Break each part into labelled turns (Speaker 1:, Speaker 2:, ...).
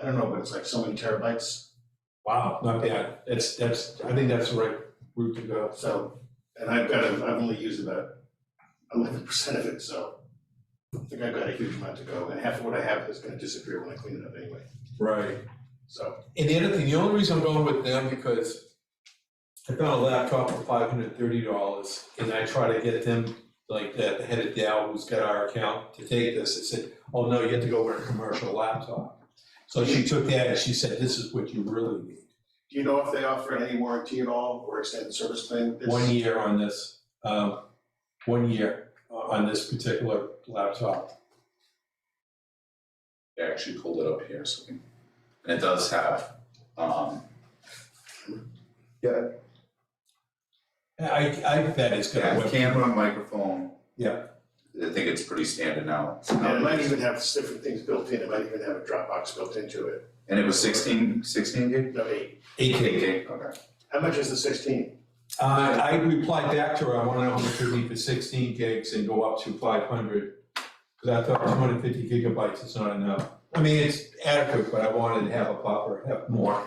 Speaker 1: I don't know, but it's like so many terabytes,
Speaker 2: Wow, not bad. That's, that's, I think that's the right route to go.
Speaker 1: so, and I've got, a- I've only used about eleven percent of it, so. I think I've got a huge amount to go, and half of what I have is gonna disappear when I clean it up anyway,
Speaker 2: Right.
Speaker 1: so.
Speaker 2: And the other thing, the only reason I'm going with them because I found a laptop for five hundred thirty dollars and I try to get them, like the the head of Dow who's got our account to take this, I said, oh no, you have to go with a commercial laptop. So she took that and she said, this is what you really need,
Speaker 1: Do you know if they offer any warranty at all, or extended service plan? Uh, It's-
Speaker 2: one year on this, um, one year on this particular laptop.
Speaker 3: I actually pulled it up here, so we, and it does have, um,
Speaker 2: I, I bet it's gonna
Speaker 3: yeah,
Speaker 2: work.
Speaker 3: camera, microphone.
Speaker 2: Yeah.
Speaker 3: I think it's pretty standard now. Um,
Speaker 1: And it might even have different things built in, it might even have a Dropbox built into it,
Speaker 3: And it was sixteen, sixteen gig?
Speaker 1: no eight.
Speaker 2: Eight K.
Speaker 3: gig, okay.
Speaker 1: How much is the sixteen?
Speaker 2: Uh, I replied back to her, I wanna know how much it would be for sixteen gigs and go up to five hundred. Cause I thought two hundred fifty gigabytes is not enough. I mean, it's adequate, but I wanted to have a buffer, have more.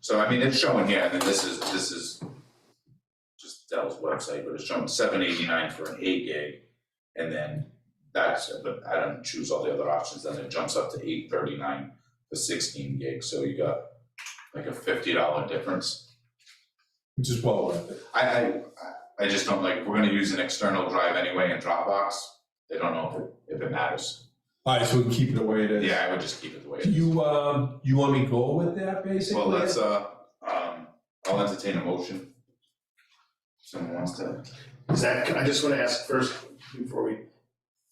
Speaker 3: So I mean, it's showing here, and then this is, this is just Dell's website, but it's showing seven eighty-nine for an eight gig. And then that's, but I don't choose all the other options, then it jumps up to eight thirty-nine for sixteen gig, so you got like a fifty dollar difference.
Speaker 2: Which is well worth it.
Speaker 3: I, I, I- I just don't like, we're gonna use an external drive anyway in Dropbox, they don't know if, if it matters.
Speaker 2: Alright, so we can keep it the way it is.
Speaker 3: Yeah, I would just keep it the way it is.
Speaker 2: You, um, you want me to go with that basically?
Speaker 3: Well, that's, uh, um, I'll entertain a motion. Someone wants to,
Speaker 1: Is that, I just wanna ask first, before we,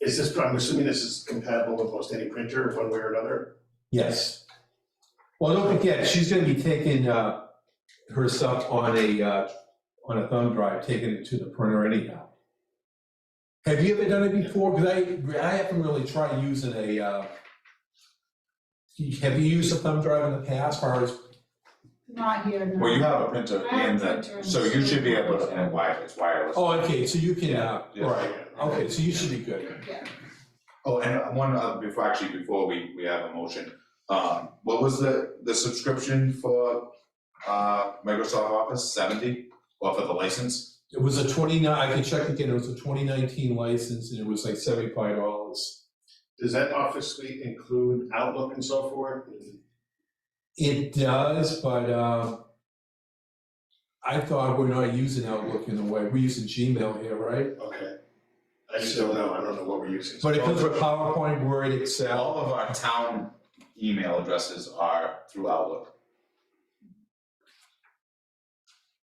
Speaker 1: is this, I'm assuming this is compatible with most any printer, one way or another?
Speaker 2: Yes. Well, don't forget, she's gonna be taking, uh, her stuff on a, uh, on a thumb drive, taking it to the printer anyhow. Have you ever done it before? Cause I, I haven't really tried using a, uh, have you used a thumb drive in the past, or is,
Speaker 4: Not here, no.
Speaker 3: well, you have a printer
Speaker 4: I have
Speaker 3: and
Speaker 4: a printer
Speaker 3: that,
Speaker 4: and
Speaker 3: so you should be
Speaker 4: stuff.
Speaker 3: able to, and wire, it's wireless.
Speaker 2: oh, okay, so you can, uh,
Speaker 3: Yeah, yeah.
Speaker 2: right, okay, so you should be good.
Speaker 4: Yeah.
Speaker 3: Oh, and one other, before, actually, before we, we have a motion, um, what was the, the subscription for, uh, Microsoft Office, seventy, or for the license?
Speaker 2: It was a twenty-nine, I can check again, it was a twenty nineteen license, and it was like seventy-five dollars.
Speaker 1: Does that office suite include Outlook and so forth?
Speaker 2: It does, but um, I thought we're not using Outlook in a way. We're using Gmail here, right?
Speaker 1: Okay. I just don't know, I don't know what we're using.
Speaker 2: But it comes with PowerPoint, Word, Excel.
Speaker 3: All of our town email addresses are through Outlook.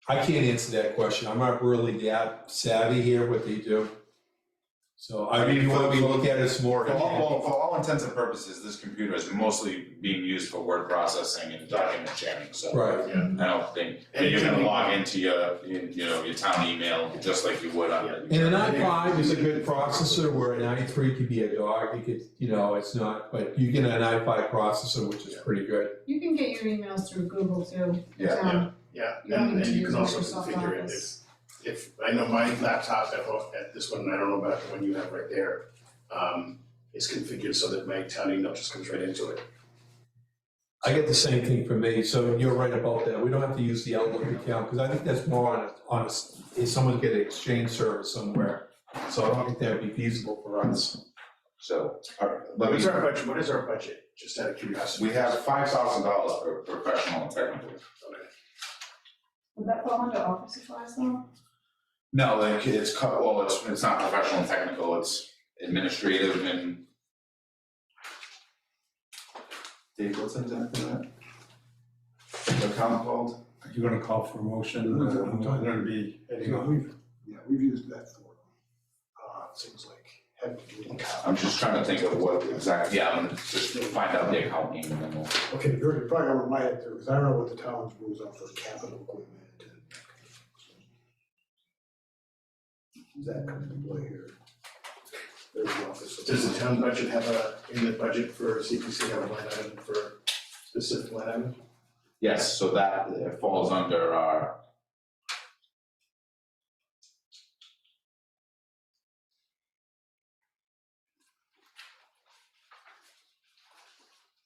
Speaker 2: I can't answer that question. I'm not really that savvy here what they do. So I
Speaker 3: I mean,
Speaker 2: mean,
Speaker 3: for-
Speaker 2: when we look at it some more.
Speaker 3: For all, well, for all intents and purposes, this computer is mostly being used for word processing and document sharing, so.
Speaker 2: Right.
Speaker 3: I don't think,
Speaker 1: And
Speaker 3: and you're
Speaker 1: it can
Speaker 3: gonna
Speaker 1: be-
Speaker 3: log into your, you you know, your town email, just like you would on. your-
Speaker 2: And an i5 is a good processor where an i3 could be a dog. It could, you know, it's not, but you get an i5 processor, which is pretty good.
Speaker 4: You can get your emails through Google too.
Speaker 3: Yeah,
Speaker 4: Um,
Speaker 1: Yeah,
Speaker 4: You don't
Speaker 1: and,
Speaker 4: need
Speaker 1: and
Speaker 4: to
Speaker 1: you
Speaker 4: use
Speaker 1: can also
Speaker 4: Microsoft
Speaker 1: configure it if,
Speaker 4: Office.
Speaker 1: if, I know my laptop, at home- at this one, I don't know about the one you have right there, um, is configured so that my town email just comes right into it.
Speaker 2: I get the same thing for me, so you're right about that, we don't have to use the Outlook account, because I think that's more on, on, if someone get an exchange service somewhere. So I don't think that'd be feasible for us.
Speaker 3: So, alright, let
Speaker 1: What is
Speaker 3: me,
Speaker 1: our budget, what is our budget, just out of curiosity?
Speaker 3: we have five thousand dollars for professional and technical.
Speaker 1: Okay.
Speaker 4: Would that fall under office supplies though?
Speaker 3: No, like, it's, co- well, it's, it's not professional and technical, it's administrative and. Dave, what's in that, for that? Account called?
Speaker 5: You're gonna call for a motion,
Speaker 6: We're
Speaker 5: uh,
Speaker 6: gonna-
Speaker 5: I'm gonna be,
Speaker 6: You know, we've, yeah, we've used that for, uh, things like head doodling.
Speaker 3: I'm just trying to think of what exactly, yeah, I'm just find out the account name and then we'll.
Speaker 6: Okay, you're, you're probably over my head there, because I don't know what the town's rules are for capital equipment. That comes into play here. There's the office. of-
Speaker 1: Does the town budget have a, in the budget for CPC, have a line item for specific line item?
Speaker 3: Yes, so that uh, falls under our